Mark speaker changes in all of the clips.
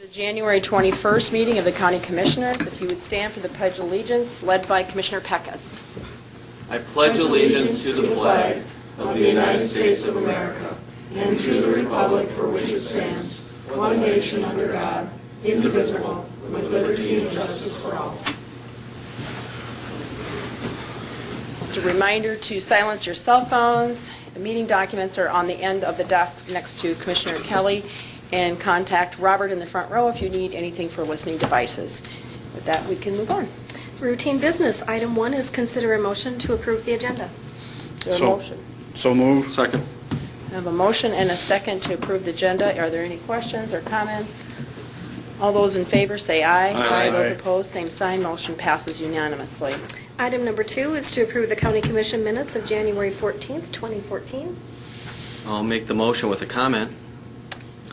Speaker 1: the January 21st meeting of the County Commissioners. If you would stand for the Pledge of Allegiance, led by Commissioner Pecas.
Speaker 2: I pledge allegiance to the flag of the United States of America and to the republic for which it stands, one nation under God, indivisible, with liberty and justice for all.
Speaker 1: Just a reminder to silence your cell phones. The meeting documents are on the end of the desk next to Commissioner Kelly, and contact Robert in the front row if you need anything for listening devices. With that, we can move on.
Speaker 3: Routine business. Item one is consider a motion to approve the agenda.
Speaker 1: Is there a
Speaker 4: So-
Speaker 1: motion?
Speaker 4: So move. Second.
Speaker 1: I have a motion and a second to approve the agenda. Are there any questions or comments? All those in favor, say aye.
Speaker 4: Aye.
Speaker 1: Those
Speaker 4: Aye.
Speaker 1: opposed, same sign. Motion passes unanimously.
Speaker 3: Item number two is to approve the county commission minutes of January 14th, 2014.
Speaker 2: I'll make the motion with a comment.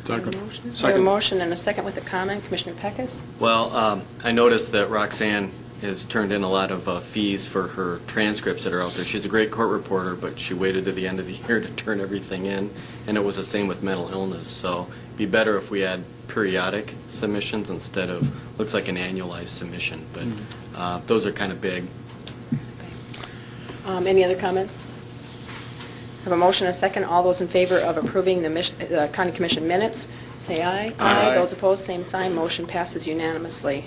Speaker 1: Motion. We have a motion and a second with a comment. Commissioner Pecas?
Speaker 2: Well, um, I noticed that Roxanne has turned in a lot of uh, fees for her transcripts that are out there. She's a great court reporter, but she waited to the end of the year to turn everything in, and it was the same with mental illness. So it'd be better if we had periodic submissions instead of, looks like an annualized submission, but uh, those are kind of big.
Speaker 1: Um, Any other comments? I Have a motion and a second. All those in favor of approving the mis- uh, the county commission minutes, say aye.
Speaker 4: Aye.
Speaker 1: Those opposed, same sign. Motion passes unanimously.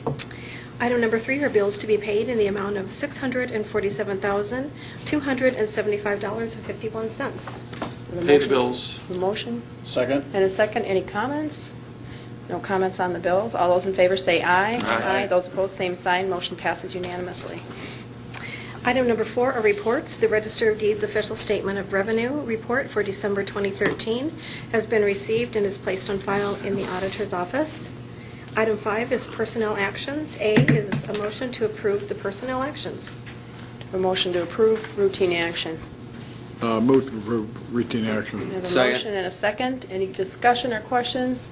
Speaker 3: Item number three are bills to be paid in the amount of $647,275.51.
Speaker 1: We have a
Speaker 5: Pay the
Speaker 1: motion-
Speaker 5: bills.
Speaker 1: A motion
Speaker 4: Second.
Speaker 1: and a second. Any comments? No comments on the bills. All those in favor, say aye.
Speaker 4: Aye.
Speaker 1: Those opposed, same sign. Motion passes unanimously.
Speaker 3: Item number four are reports. The Register of Deeds official statement of revenue report for December 2013 has been received and is placed on file in the auditor's office. Item five is personnel actions. A is a motion to approve the personnel actions.
Speaker 1: A motion to approve routine action.
Speaker 6: Uh, Move to approve routine
Speaker 1: We
Speaker 6: action.
Speaker 1: have a
Speaker 5: Second.
Speaker 1: motion and a second. Any discussion or questions?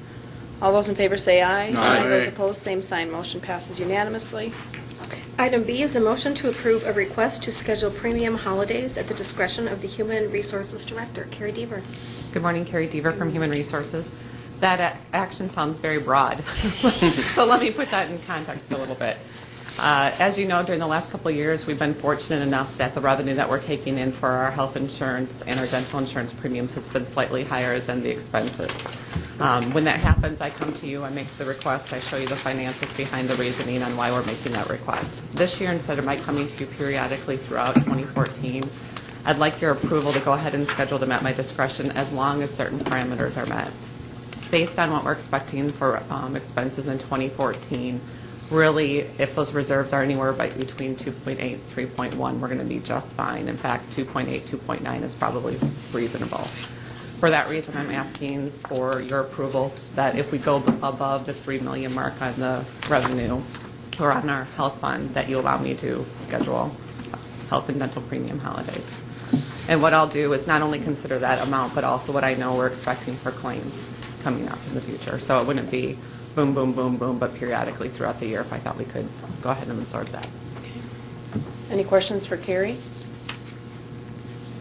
Speaker 1: All those in favor say aye.
Speaker 6: Aye.
Speaker 1: Those opposed, same sign. Motion passes unanimously.
Speaker 3: Item B is a motion to approve a request to schedule premium holidays at the discretion of the Human Resources Director. Carrie Deaver.
Speaker 7: Good morning, Carrie Dever from Human Resources. That a- action sounds very broad, so let me put that in context a little bit. Uh, As you know, during the last couple of years, we've been fortunate enough that the revenue that we're taking in for our health insurance and our dental insurance premiums has been slightly higher than the expenses. Um, When that happens, I come to you, I make the request, I show you the financials behind the reasoning on why we're making that request. This year, instead of my coming to you periodically throughout 2014, I'd like your approval to go ahead and schedule them at my discretion as long as certain parameters are met. Based on what we're expecting for um, expenses in 2014, really, if those reserves are anywhere by between 2.8, 3.1, we're going to be just fine. In fact, 2.8, 2.9 is probably reasonable. For that reason, I'm asking for your approval that if we go above the 3 million mark on the revenue or on our health fund, that you allow me to schedule health and dental premium holidays. And what I'll do is not only consider that amount, but also what I know we're expecting for claims coming up in the future. So it wouldn't be boom, boom, boom, boom, but periodically throughout the year if I thought we could go ahead and absorb that.
Speaker 1: Any questions for Carrie?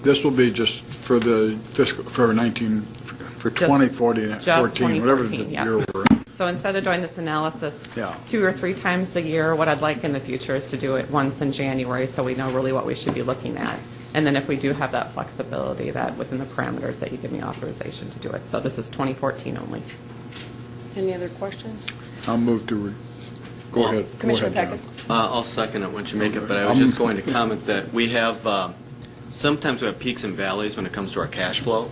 Speaker 6: This will be just for the fiscal, for 19, for
Speaker 7: Just-
Speaker 6: 2014,
Speaker 7: just
Speaker 6: 14, whatever the
Speaker 7: 2014, yeah.
Speaker 6: year we're in.
Speaker 7: So instead of doing this analysis
Speaker 6: Yeah.
Speaker 7: two or three times a year, what I'd like in the future is to do it once in January so we know really what we should be looking at. And then if we do have that flexibility, that within the parameters that you give me authorization to do it. So this is 2014 only.
Speaker 1: Any other questions?
Speaker 6: I'll move to, re- go ahead. Go
Speaker 1: Commissioner
Speaker 6: ahead, John.
Speaker 1: Pecas?
Speaker 2: Uh, I'll second it once you make it, but I
Speaker 6: Um,
Speaker 2: was just going to comment that we have, um, sometimes we have peaks and valleys when it comes to our cash flow,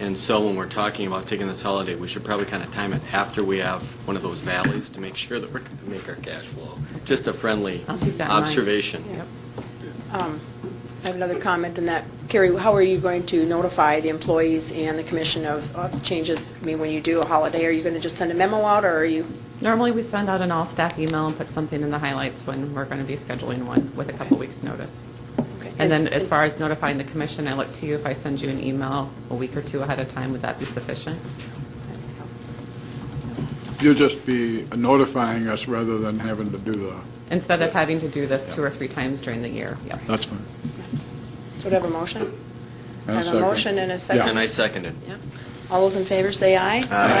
Speaker 2: and so when we're talking about taking this holiday, we should probably kind of time it after we have one of those valleys to make sure that we're going to make our cash flow. Just a friendly
Speaker 7: I'll keep that in mind.
Speaker 2: observation.
Speaker 7: Yep.
Speaker 1: um, I have another comment in that. Carrie, how are you going to notify the employees and the commission of of changes? I mean, when you do a holiday, are you going to just send a memo out, or are you,
Speaker 7: Normally, we send out an all-staff email and put something in the highlights when we're going to be scheduling one with a couple weeks' notice.
Speaker 1: okay.
Speaker 7: And then as far as notifying the commission, I look to you, if I send you an email a week or two ahead of time, would that be sufficient?
Speaker 6: You'll just be notifying us rather than having to do the,
Speaker 7: Instead of having to do this two or three times during the year, yep.
Speaker 6: that's fine.
Speaker 1: So do I have a motion?
Speaker 6: And
Speaker 1: I have a
Speaker 6: second.
Speaker 1: motion and a
Speaker 6: Yeah.
Speaker 1: second.
Speaker 2: And I second it.
Speaker 1: All those in favor, say aye. Aye.